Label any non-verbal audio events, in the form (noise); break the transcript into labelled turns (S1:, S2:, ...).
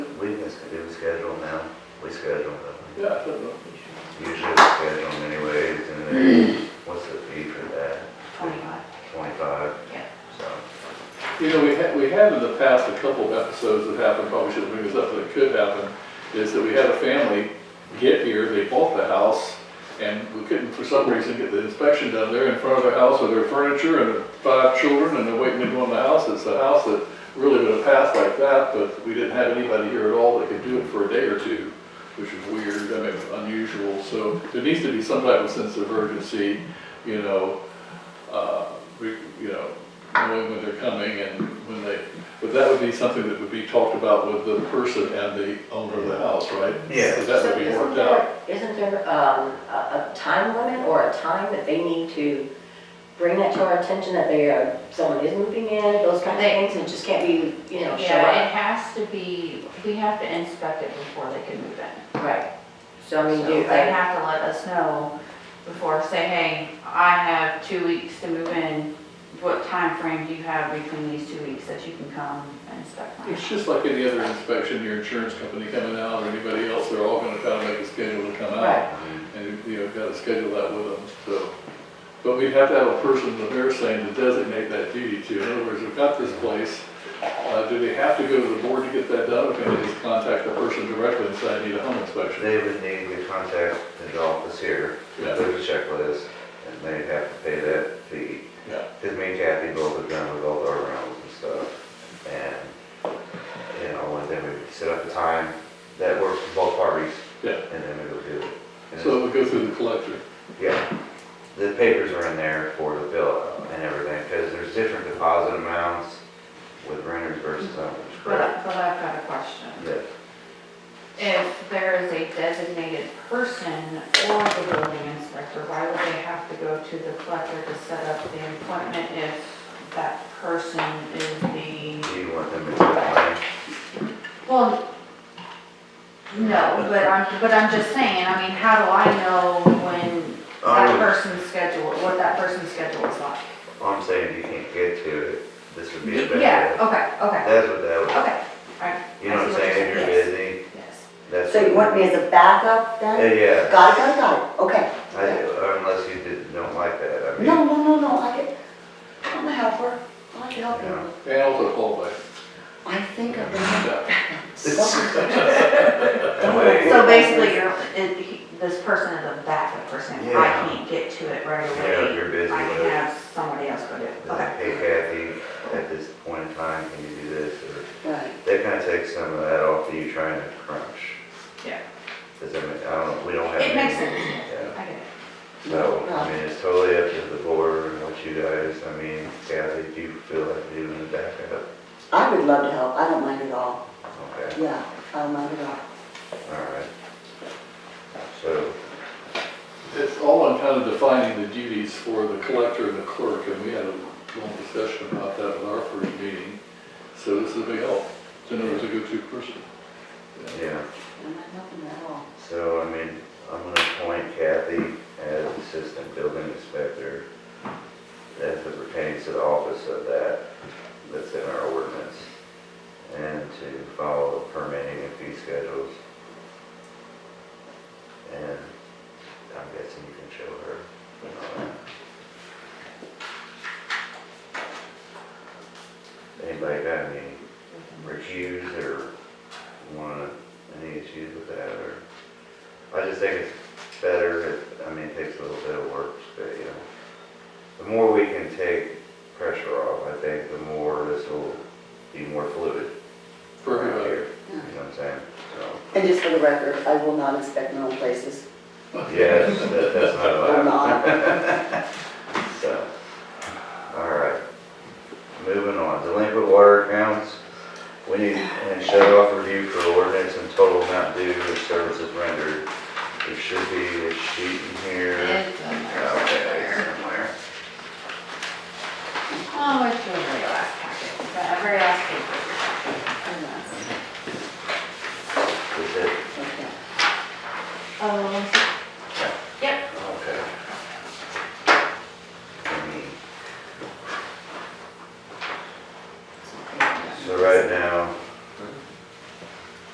S1: schedule now? We schedule them.
S2: Yeah, I don't know.
S1: Usually we schedule them anyways, and then what's the fee for that?
S3: Twenty-five.
S1: Twenty-five?
S3: Yeah.
S1: So,
S2: You know, we had, we had in the past a couple of episodes that happened, probably should have moved this up, but it could happen, is that we had a family get here, they bought the house, and we couldn't, for some reason, get the inspection done there in front of their house with their furniture and their five children, and they're waiting to go in the house, it's a house that really would have passed like that, but we didn't have anybody here at all that could do it for a day or two, which is weird, I mean, unusual, so there needs to be some type of sense of urgency, you know, uh, we, you know, knowing when they're coming and when they, but that would be something that would be talked about with the person and the owner of the house, right?
S1: Yeah.
S2: So That
S3: So
S2: would be
S3: isn't
S2: worked
S3: there-
S2: out.
S3: Isn't there, um, a, a time limit or a time that they need to bring that to our attention that they are, someone is moving in, those kind of
S4: They-
S3: things, and it just can't be, you know, show
S4: Yeah,
S3: up?
S4: it has to be, we have to inspect it before they can move in.
S3: Right, so I mean,
S4: So
S3: do,
S4: They have to let us know before, say, hey, I have two weeks to move in. What time frame do you have between these two weeks that you can come and inspect my house?
S2: It's just like any other inspection, your insurance company coming out or anybody else, they're all gonna kind of make a schedule to come out.
S3: Right.
S1: um,
S2: And, you know, gotta schedule that with them, so. But we have to have a person, the mayor's saying, to designate that duty to. In other words, we've got this place, uh, do they have to go to the board to get that done? Or can they just contact the person directly and say, I need a home inspection?
S1: they would need to contact his office here,
S2: Yeah.
S1: there's a checklist, and they'd have to pay that fee.
S2: Yeah.
S1: Cause me and Kathy both have done with all our rounds and stuff, and, you know, and then we set up a time that works for both parties.
S2: Yeah.
S1: And then we go do it. And it's-
S2: So it would go through the collector.
S1: Yeah, the papers are in there for the bill and everything, because there's different deposit amounts with renters versus owners,
S4: But,
S1: correct?
S4: I- but I've got a question.
S1: Yes,
S4: If there is a designated person or the building inspector, why would they have to go to the collector to set up the appointment if that person is the
S1: do you want them to complain?
S4: Well, no, but I'm, but I'm just saying, I mean, how do I know when that
S1: Oh,
S4: person's schedule, what that person's schedule is like?
S1: I'm saying you can't get to it, this would be a
S4: Yeah,
S1: bad,
S4: okay, okay,
S1: that's what that would,
S4: okay, alright,
S1: you know what I'm
S4: I see what you're
S1: saying, if you're
S4: saying,
S1: busy,
S4: yes.
S1: that's.
S3: so you want me as a backup
S1: Yeah,
S3: then?
S1: Yeah,
S3: Got it, got it, got it, okay.
S1: I do, or unless you did- don't like that, I mean. (laughs)
S3: No, no, no, no, I can, I'm a helper, I can help
S1: Yeah.
S3: you.
S2: And also qualified.
S3: I think I've been
S2: Yeah.
S3: something.
S1: that way-
S4: So basically, you're, it, he- this person is a backup person, I
S1: Yeah.
S4: can't get to it right
S1: Yeah, if
S4: away,
S1: you're
S4: I
S1: busy,
S4: can
S1: but,
S4: have somebody else go do it, okay.
S1: hey Kathy, at this point in time, can you do this, or?
S3: Right,
S1: That kind of takes some of that off of you trying to crunch.
S4: Yeah.
S1: Does that make, I don't, we don't have.
S4: It makes
S1: any-
S4: sense,
S1: Yeah,
S4: I get it.
S1: so, I mean, it's totally up to the board and what you guys, I mean, Kathy, if you feel like doing the backup,
S3: I would love to help, I don't mind at all,
S1: okay,
S3: yeah, I don't mind at all.
S1: all right. So,
S2: It's all on kind of defining the duties for the collector and the clerk, and we had a long discussion about that in our first meeting. So this is a big help, to know who's a go-to person.
S1: yeah,
S3: I'm not helping at all.
S1: so, I mean, I'm gonna appoint Kathy as assistant building inspector as it pertains to the office of that, that's in our ordinance, and to follow the permitting and fee schedules. And I'm guessing you can show her. and all that. Anybody got any recuse or wanna, any issues with that, or? I just think it's better, it- I mean, it takes a little bit of work, but, you know, the more we can take pressure off, I think, the more this will be more fluid
S2: For
S1: around
S2: everybody.
S1: here, you know what I'm saying? So,
S3: And just for the record, I will not inspect my own places,
S1: yes, that- that's not
S3: will
S1: allowed,
S3: not.
S1: so, all right. Moving on, delinquent water accounts, we need, and shut off review for ordinance and total amount due for services rendered. There should be a sheet in here.
S4: It's in there
S1: Okay,
S4: somewhere.
S1: somewhere.
S4: Oh, it's the very last packet, the very last paper.